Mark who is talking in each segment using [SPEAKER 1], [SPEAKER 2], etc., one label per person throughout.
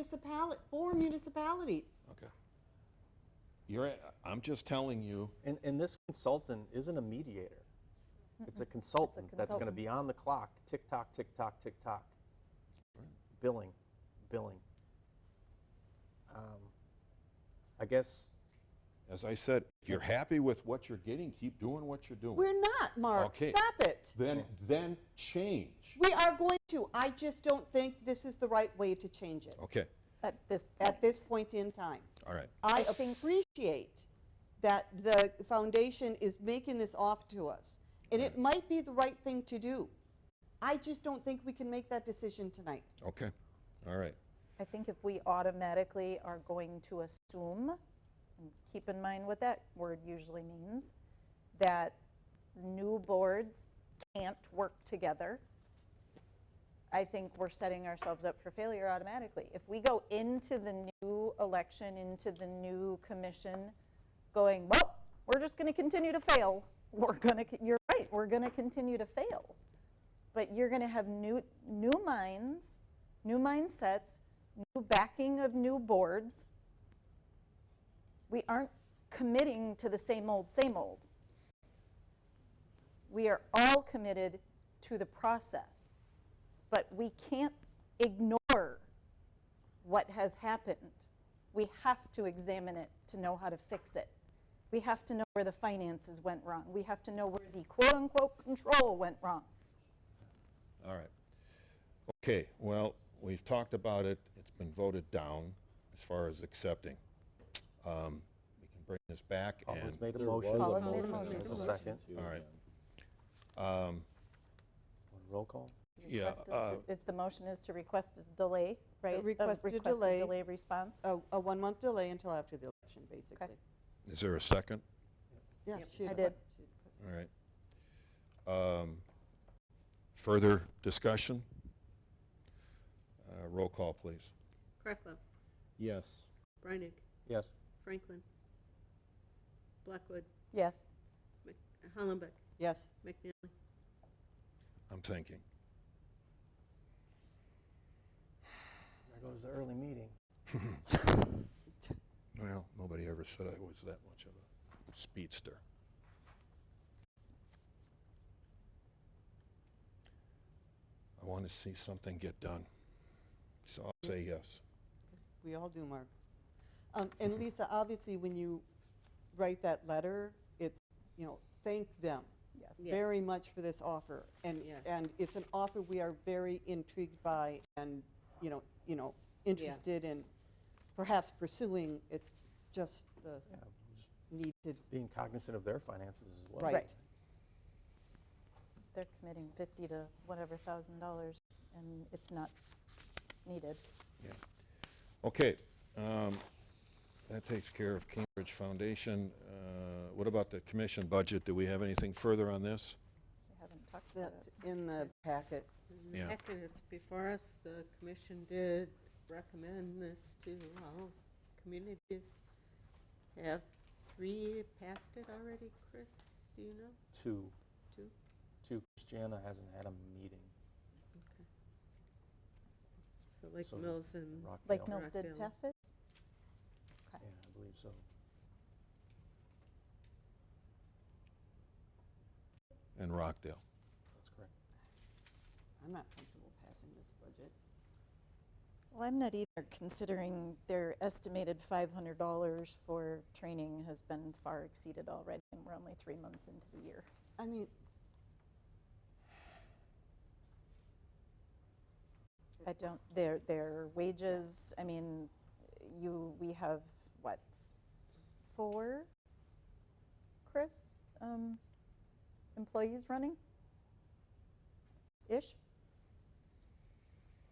[SPEAKER 1] municipality, four municipalities.
[SPEAKER 2] Okay. You're, at- I'm just telling you,
[SPEAKER 3] And, and this consultant isn't a mediator. It's a consultant that's going to
[SPEAKER 1] consultant.
[SPEAKER 3] be on the clock, tick tock, tick tock, tick tock. Billing, billing. Um, I guess,
[SPEAKER 2] as I said, if you're happy with what you're getting, keep doing what you're doing.
[SPEAKER 1] We're not, Mark.
[SPEAKER 2] Oh. Okay.
[SPEAKER 1] Stop it.
[SPEAKER 2] Then, then change.
[SPEAKER 1] We are going to. I just don't think this is the right way to change it
[SPEAKER 2] Okay,
[SPEAKER 4] at this
[SPEAKER 1] at this point in time.
[SPEAKER 2] all right.
[SPEAKER 1] I appreciate that the foundation is making this off to us, and it might be the right thing to do. I just don't think we can make that decision tonight.
[SPEAKER 2] Okay, all right.
[SPEAKER 4] I think if we automatically are going to assume, and keep in mind what that word usually means, that new boards can't work together, I think we're setting ourselves up for failure automatically. If we go into the new election, into the new commission, going, well, we're just going to continue to fail, we're going to, you're right, we're going to continue to fail but you're going to have new new minds, new mindsets, new backing of new boards. We aren't committing to the same old, same old. We are all committed to the process, but we can't ignore what has happened. We have to examine it to know how to fix it. We have to know where the finances went wrong. We have to know where the quote unquote control went wrong.
[SPEAKER 2] All right. Okay, well, we've talked about it. It's been voted down as far as accepting. Um, We can bring this back and...
[SPEAKER 3] Paula's made a
[SPEAKER 5] There was
[SPEAKER 3] motion.
[SPEAKER 4] Paula's made a
[SPEAKER 5] There
[SPEAKER 4] motion.
[SPEAKER 5] was
[SPEAKER 3] There's a
[SPEAKER 5] motion
[SPEAKER 3] second.
[SPEAKER 5] to,
[SPEAKER 2] All right.
[SPEAKER 5] um,
[SPEAKER 2] um,
[SPEAKER 3] Roll call?
[SPEAKER 2] Yeah,
[SPEAKER 4] Request is-
[SPEAKER 2] uh,
[SPEAKER 4] if The motion is to request a delay, right? Of
[SPEAKER 1] request a
[SPEAKER 4] Request
[SPEAKER 1] delay.
[SPEAKER 4] a delay Oh, response.
[SPEAKER 1] A, a one-month delay until after the election, basically.
[SPEAKER 2] Is there a second?
[SPEAKER 1] Yes, she's-
[SPEAKER 4] I did.
[SPEAKER 2] All right. Um, Further discussion? Uh, Roll call, please.
[SPEAKER 6] Krakow,
[SPEAKER 5] Yes.
[SPEAKER 6] Brynick,
[SPEAKER 3] Yes.
[SPEAKER 6] Franklin, Blackwood,
[SPEAKER 4] Yes.
[SPEAKER 6] Mc- Hollenbeck,
[SPEAKER 1] Yes.
[SPEAKER 6] McNally.
[SPEAKER 2] I'm thinking.
[SPEAKER 3] There goes the early meeting.
[SPEAKER 2] Well, nobody ever said I was that much of a speedster. I want to see something get done. So I'll say yes.
[SPEAKER 1] We all do, Mark. Um, And Lisa, obviously, when you write that letter, it's, you know, thank them
[SPEAKER 4] Yes.
[SPEAKER 6] Yeah.
[SPEAKER 1] very much for this offer. And,
[SPEAKER 6] Yes.
[SPEAKER 1] and it's an offer we are very intrigued by and, you know, you know, interested in perhaps pursuing. It's just the
[SPEAKER 3] Yeah, just
[SPEAKER 1] need to,
[SPEAKER 3] Being cognizant of their finances as well.
[SPEAKER 1] right.
[SPEAKER 4] Right. They're committing 50 to whatever thousand dollars, and it's not needed.
[SPEAKER 2] Okay, um, that takes care of Cambridge Foundation. Uh, What about the commission budget? Do we have anything further on this?
[SPEAKER 4] We haven't talked about
[SPEAKER 1] That's
[SPEAKER 4] it.
[SPEAKER 1] in the packet.
[SPEAKER 2] Yeah.
[SPEAKER 6] Actually, it's before us, the commission did recommend this to all communities. Have three passed it already, Chris? Do you know?
[SPEAKER 3] Two.
[SPEAKER 6] Two?
[SPEAKER 3] Two. Christiana hasn't had a meeting.
[SPEAKER 6] So Lake
[SPEAKER 3] So-
[SPEAKER 6] Mills and
[SPEAKER 3] Rockdale.
[SPEAKER 4] Lake Mills did
[SPEAKER 6] Rockdale.
[SPEAKER 4] pass it?
[SPEAKER 3] Yeah, I believe so.
[SPEAKER 2] And Rockdale.
[SPEAKER 3] That's correct.
[SPEAKER 1] I'm not comfortable passing this budget.
[SPEAKER 4] Well, I'm not either, considering their estimated $500 for training has been far exceeded already, and we're only three months into the year.
[SPEAKER 1] I mean,
[SPEAKER 4] I don't, their, their wages, I mean, you, we have, what, four, Chris, um, employees running? Ish?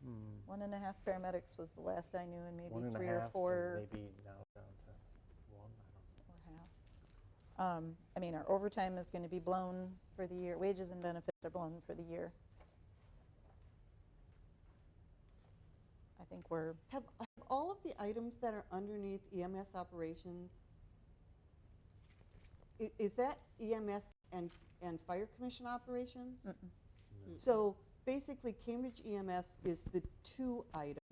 [SPEAKER 3] Hmm.
[SPEAKER 4] One and a half paramedics was the last I knew, and
[SPEAKER 3] One
[SPEAKER 4] maybe
[SPEAKER 3] and a
[SPEAKER 4] three
[SPEAKER 3] half,
[SPEAKER 4] or
[SPEAKER 3] and
[SPEAKER 4] four
[SPEAKER 3] Maybe now down to one, I don't know.
[SPEAKER 4] or half. Um, I mean, our overtime is gonna be blown for the year, wages and benefits are blown for the year. I think we're
[SPEAKER 1] have, have all of the items that are underneath EMS operations, i- is that EMS and, and fire commission E operations? So basically Cambridge EMS is the two item